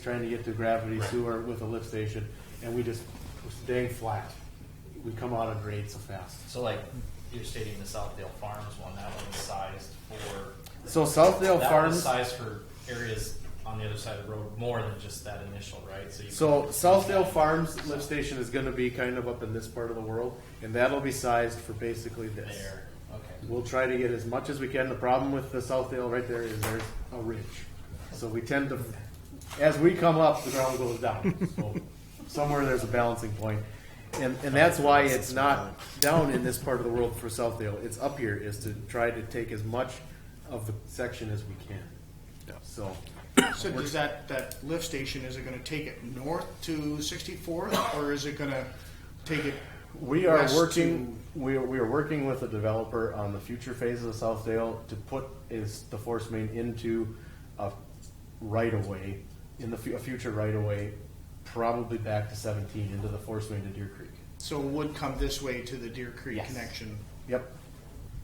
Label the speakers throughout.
Speaker 1: trying to get to gravity sewer with a lift station, and we just was dang flat. We come out of grade so fast.
Speaker 2: So like, you're stating the Southdale Farms one, that one was sized for.
Speaker 1: So Southdale
Speaker 2: That was
Speaker 1: Oh, Farms,
Speaker 2: sized for areas on the other side of the road, more than just that initial, right? So you.
Speaker 1: so
Speaker 2: can-
Speaker 1: Southdale Farms lift station is gonna be kind of up in this part of the world, and that'll be sized for basically this.
Speaker 2: There, okay.
Speaker 1: We'll try to get as much as we can. The problem with the Southdale right there is there's a ridge. So we tend to, as we come up, the ground goes down. So Somewhere there's a balancing point. And, and that's why it's not down in this part of the world for Southdale. It's up here is to try to take as much of the section as we can. So,
Speaker 3: So does that, that lift station, is it gonna take it north to sixty-fourth, or is it gonna take it?
Speaker 1: We are
Speaker 3: west
Speaker 1: working, we are, we are working with a developer on the future phases of Southdale to put is the force main into a right of way, in the, fu- a future right of way, probably back to seventeen into the force main to Deer Creek.
Speaker 3: to- So it would come this way to the Deer Creek
Speaker 1: Yes.
Speaker 3: connection?
Speaker 1: Yep,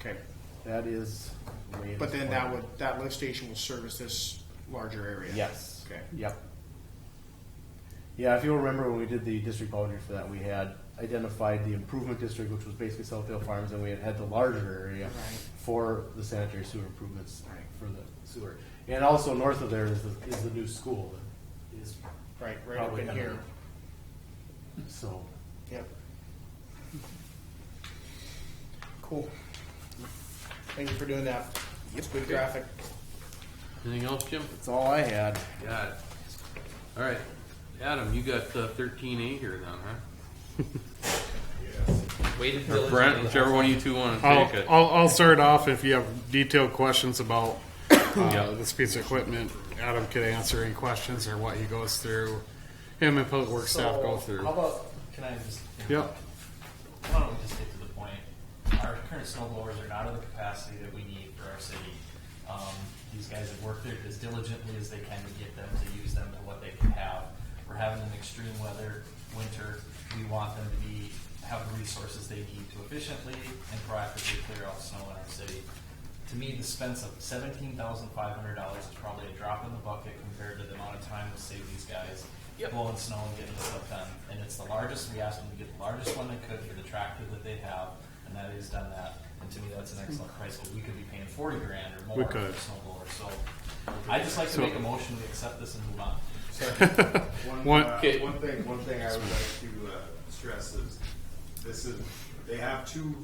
Speaker 3: Okay,
Speaker 1: that is. the latest
Speaker 3: but then
Speaker 1: plan.
Speaker 3: that would, that lift station will service this larger area?
Speaker 1: Yes.
Speaker 3: Okay.
Speaker 1: Yep. Yeah, if you'll remember when we did the district boundary for that, we had identified the improvement district, which was basically Southdale Farms, and we had had the larger area
Speaker 3: Right.
Speaker 1: for the sanitary sewer improvements
Speaker 3: Right.
Speaker 1: for the sewer. And also north of there is the, is the new school that is,
Speaker 3: Right, right up
Speaker 1: Probably
Speaker 3: in
Speaker 1: gonna-
Speaker 3: here,
Speaker 1: so.
Speaker 3: yep. Cool. Thank you for doing that. It's good graphic.
Speaker 4: Anything else, Jim?
Speaker 1: That's all I had.
Speaker 4: Got it. All right, Adam, you got uh, thirteen A here then, huh?
Speaker 2: Waited
Speaker 4: Or
Speaker 2: diligently.
Speaker 4: Brent, whichever one you two want to
Speaker 5: I'll,
Speaker 4: take it.
Speaker 5: I'll, I'll start off if you have detailed questions about uh,
Speaker 4: Yeah.
Speaker 5: this piece of equipment. Adam could answer any questions or what he goes through. Him and public works staff go
Speaker 2: So,
Speaker 5: through.
Speaker 2: How about, can I just?
Speaker 5: Yep.
Speaker 2: Why don't we just get to the point? Our current snow blowers are not of the capacity that we need for our city. Um, these guys have worked it as diligently as they can to get them, to use them to what they can have. We're having an extreme weather winter. We want them to be, have the resources they need to efficiently and proactively clear out snow in our city. To me, the expense of seventeen thousand five hundred dollars is probably a drop in the bucket compared to the amount of time we save these guys blowing snow and getting this stuff done. And it's the largest, we asked them to get the largest one they could for the tractor that they have, and that is done that. And to me, that's an excellent price, but we could be paying forty grand or more
Speaker 5: We
Speaker 2: for a
Speaker 5: could.
Speaker 2: snow blower, so. I'd just like to
Speaker 5: So-
Speaker 2: make a motion, we accept this and move on.
Speaker 6: One,
Speaker 5: One-
Speaker 6: uh,
Speaker 4: Okay.
Speaker 6: one thing, one thing I would like to uh, stress is, this is, they have two,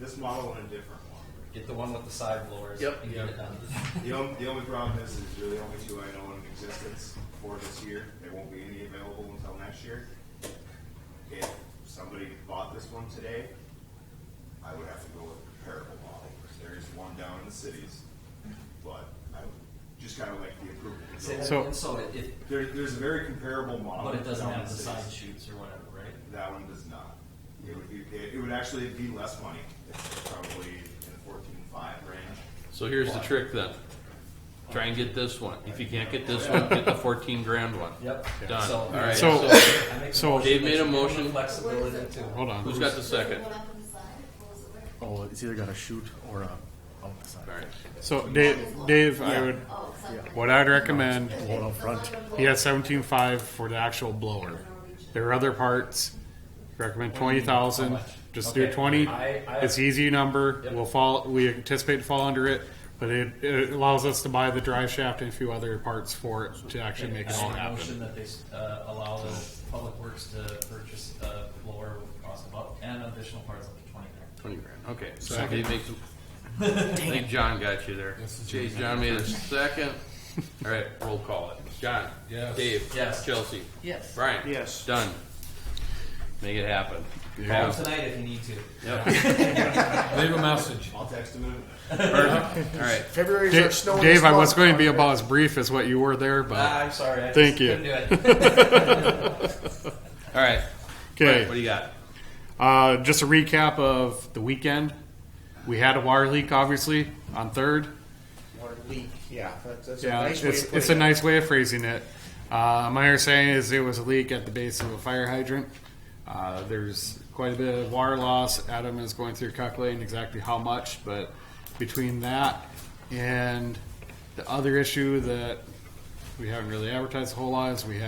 Speaker 6: this model and a different one.
Speaker 2: Get the one with the side blowers.
Speaker 4: Yep.
Speaker 2: and get it done.
Speaker 6: The only, the only problem is, is you're the only two I know in existence for this year, there won't be any available until next year. If somebody bought this one today, I would have to go with a comparable model, there is one down in the cities, but I would just kinda like the approval. to
Speaker 2: Say
Speaker 6: go.
Speaker 2: that
Speaker 5: So-
Speaker 2: again, so it- it,
Speaker 6: There, there's a very comparable model.
Speaker 2: but it doesn't
Speaker 6: down in
Speaker 2: have the
Speaker 6: cities.
Speaker 2: side shoots or whatever, right?
Speaker 6: That one does not. It would, be- it, it would actually be less money. It's probably in the fourteen-five range.
Speaker 4: So here's the trick then. Try and get this one. If you can't get this one, get the fourteen grand one.
Speaker 2: Yep.
Speaker 4: Done.
Speaker 2: So-
Speaker 4: All right.
Speaker 5: So-
Speaker 2: I make a
Speaker 5: So-
Speaker 2: motion that
Speaker 4: Dave made
Speaker 2: you
Speaker 4: a
Speaker 2: give them the
Speaker 4: motion.
Speaker 2: Flexibility to.
Speaker 5: Hold
Speaker 4: Who's
Speaker 5: on.
Speaker 4: got the second?
Speaker 7: Does it go up on the side or pulls away?
Speaker 1: Oh, it's either got a shoot or a, oh, out the side.
Speaker 4: All right.
Speaker 5: So Dave, Dave, I would,
Speaker 7: Oh, it's up.
Speaker 5: what I'd recommend,
Speaker 1: One up front.
Speaker 5: he has seventeen five for the actual blower. There are other parts. Recommend twenty thousand. Just do
Speaker 2: Okay.
Speaker 5: twenty.
Speaker 2: I- I-
Speaker 5: It's easy number.
Speaker 2: Yep.
Speaker 5: We'll fall. We anticipate to fall under it, but it, it allows us to buy the drive shaft and a few other parts for it to actually make it all
Speaker 2: I make a
Speaker 5: happen.
Speaker 2: motion that they, uh, allow the public works to purchase a blower with cost of up and additional parts up to twenty grand.
Speaker 4: Twenty grand. Okay. So Dave makes a, I think John got you there. Okay, John made a second. All right, roll call it. John. Yes. Dave.
Speaker 2: Yes.
Speaker 4: Chelsea.
Speaker 2: Yes.
Speaker 4: Brian.
Speaker 3: Yes.
Speaker 4: Done. Make it happen.
Speaker 2: Call them tonight if you need to.
Speaker 8: Leave a message.
Speaker 6: I'll text them in a minute.
Speaker 4: Perfect. All right.
Speaker 3: February's our
Speaker 5: Dave,
Speaker 3: snow. and
Speaker 5: Dave, I
Speaker 3: slush
Speaker 5: was going to be
Speaker 3: month.
Speaker 5: about as brief as what you were there,
Speaker 2: Ah,
Speaker 5: but
Speaker 2: I'm sorry. I
Speaker 5: Thank
Speaker 2: just
Speaker 5: you.
Speaker 2: couldn't do it.
Speaker 4: All right. What do
Speaker 5: okay.
Speaker 4: you got?
Speaker 5: Uh, just a recap of the weekend. We had a water leak, obviously, on third.
Speaker 3: Or leak, yeah, that's, that's a
Speaker 5: Yeah,
Speaker 3: nice way
Speaker 5: it's
Speaker 3: to put
Speaker 5: it's
Speaker 3: it.
Speaker 5: a nice way of phrasing it. Uh, my understanding is it was a leak at the base of a fire hydrant. Uh, there's quite a bit of water loss. Adam is going through calculating exactly how much, but between that and the other issue that we haven't really advertised a whole lot, is we have